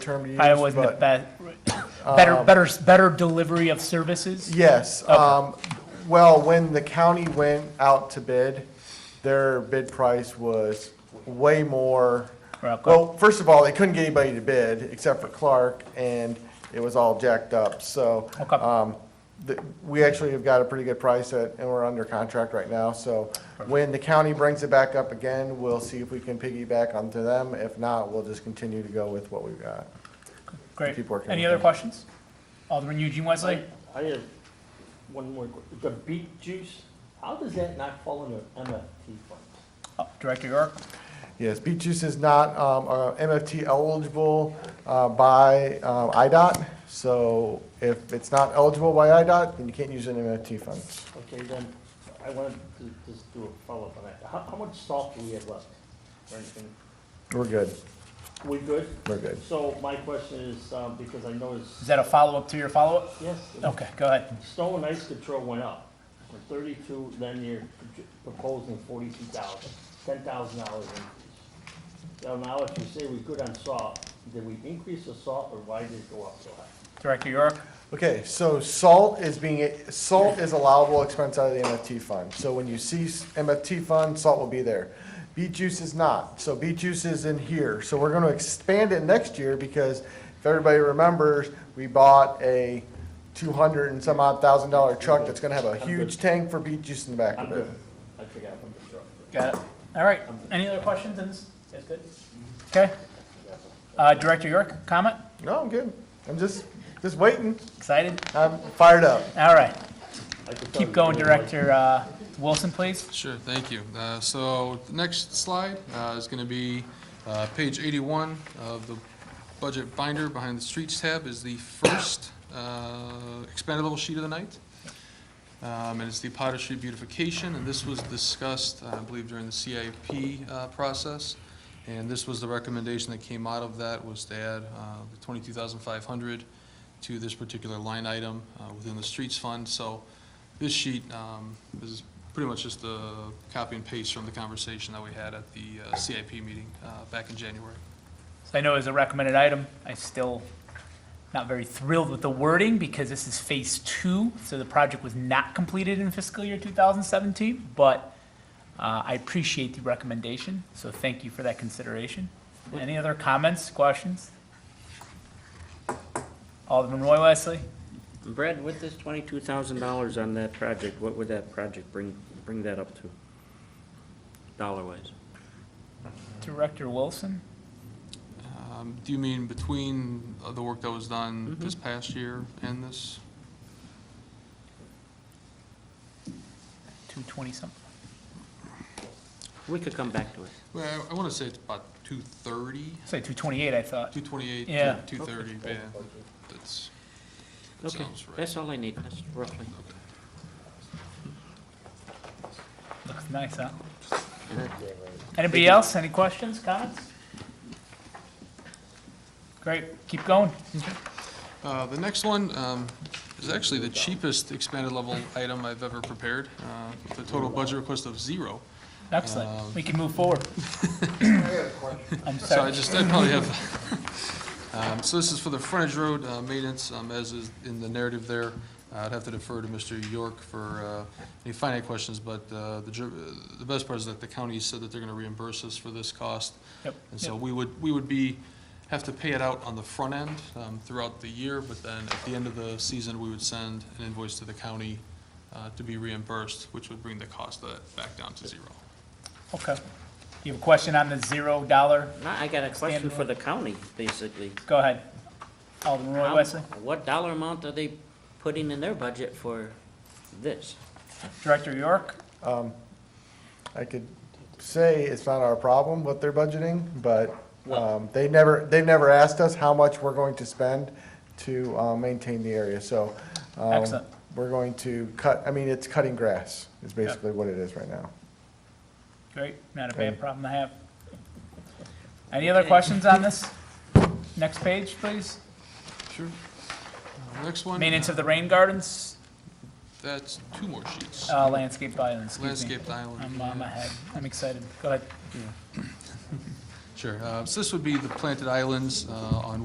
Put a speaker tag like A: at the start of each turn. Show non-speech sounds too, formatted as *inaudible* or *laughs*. A: term to use.
B: Probably wasn't the
A: but- Um,
B: best, better, better, better delivery of services?
A: Yes, um, well, when the county went out to bid, their bid price was way more.
B: Okay.
A: Well, first of all, they couldn't get anybody to bid except for Clark, and it was all jacked up, so.
B: Okay.
A: um, the- We actually have got a pretty good price at, and we're under contract right now, so when the county brings it back up again, we'll see if we can piggyback onto them. If not, we'll just continue to go with what we've got.
B: Great.
A: keep working
B: Any
A: with
B: other
A: them.
B: questions? Alderman Eugene Wesley?
C: I have one more, que- the beet juice, how does that not fall under MFT funds?
B: Oh, Director York?
A: Yes, beet juice is not um, uh, MFT eligible uh, by uh, IDOT, so if it's not eligible by IDOT, then you can't use an MFT fund.
C: Okay, then, I wanted to just do a follow-up on that. How, how much salt do we have left? Or anything?
A: We're good,
C: We good?
A: we're good.
C: So my question is, um, because I noticed,
B: Is that a follow-up to your follow-up?
C: yes,
B: Okay, go ahead.
C: snow and ice control went up from thirty-two, then you're proposing forty-two thousand, ten thousand dollars increase. Now, now that you say we're good on salt, did we increase the salt or why did it go up so high?
B: Director York?
A: Okay, so salt is being, salt is allowable expense out of the MFT fund. So when you see s- MFT fund, salt will be there. Beet juice is not, so beet juice is in here. So we're gonna expand it next year because if everybody remembers, we bought a two hundred and some odd thousand dollar truck that's gonna have a
C: I'm good.
A: huge tank for beet juice in the back
C: I'm
A: of
C: good.
A: it.
C: I forgot I'm good.
B: Got it. All right. Any other questions in this? That's good. Okay. Uh, Director York, comment?
A: No, I'm good. I'm just, just waiting.
B: Excited?
A: I'm fired up.
B: All right.
C: I could tell
B: Keep
C: you
B: going,
C: really like-
B: Director uh, Wilson, please.
D: Sure, thank you. Uh, So the next slide uh, is going to be uh, page 81 of the budget binder behind the Streets tab is the first uh, expendable sheet of the night. Um, And it's the Potter Street beautification, and this was discussed, uh, I believe, during the CIP uh, process. And this was the recommendation that came out of that, was to add uh, the 22,500 to this particular line item uh, within the streets fund. So this sheet um, is pretty much just a copy and paste from the conversation that we had at the uh, CIP meeting uh, back in January.
B: So I know as a recommended item, I still not very thrilled with the wording because this is phase two, so the project was not completed in fiscal year 2017, but uh, I appreciate the recommendation, so thank you for that consideration. Any other comments, questions? Alderman Roy Wesley?
E: Brad, with this twenty-two thousand dollars on that project, what would that project bring, bring that up to? Dollar-wise?
B: Director Wilson?
D: Um, Do you mean between uh, the work that was done this past year and this?
B: 220 something?
E: We could come back to it.
D: Well, I want to say it's about 230,
B: Say 228, I thought.
D: 228,
B: Yeah.
D: 230, yeah. That's, that
E: Okay,
D: sounds right.
E: that's all I need, that's roughly.
B: Looks nice, huh? Anybody else? Any questions, comments? Great, keep going.
D: Uh, The next one um, is actually the cheapest expanded level item I've ever prepared, uh, with a total budget request of zero. Um,
B: Excellent. We can move
D: *laughs*
B: forward. I'm
D: So I
B: sorry.
D: just, I probably have, *laughs* um, so this is for the frontage road uh, maintenance, um, as is in the narrative there. I'd have to defer to Mr. York for uh, any finite questions, but uh, the dri- uh, the best part is that the county said that they're going to reimburse us for this cost.
B: Yep,
D: And so
B: yep.
D: we would, we would be, have to pay it out on the front end um, throughout the year, but then at the end of the season, we would send an invoice to the county uh, to be reimbursed, which would bring the cost of that back down to zero.
B: Okay. You have a question on the zero dollar?
E: No, I got a question
B: Standalone.
E: for the county, basically.
B: Go ahead. Alderman Roy
E: How-
B: Wesley,
E: What dollar amount are they putting in their budget for this?
B: Director York.
A: I could say it's not our problem what they're budgeting, but um, they never, they've never asked us how much we're going to spend to uh, maintain the area, so. um,
B: Excellent.
A: We're going to cut, I mean, it's cutting grass is basically what it is right now.
B: Great, not a bad problem to have. Any other questions on this? Next page, please.
D: Sure. Uh, Next one.
B: Maintenance of the rain gardens,
D: That's two more sheets.
B: uh, landscaped islands, excuse me.
D: Landscaped island.
B: I'm on my head. I'm excited. Go ahead.
D: Sure. Uh, So this would be the planted islands uh, on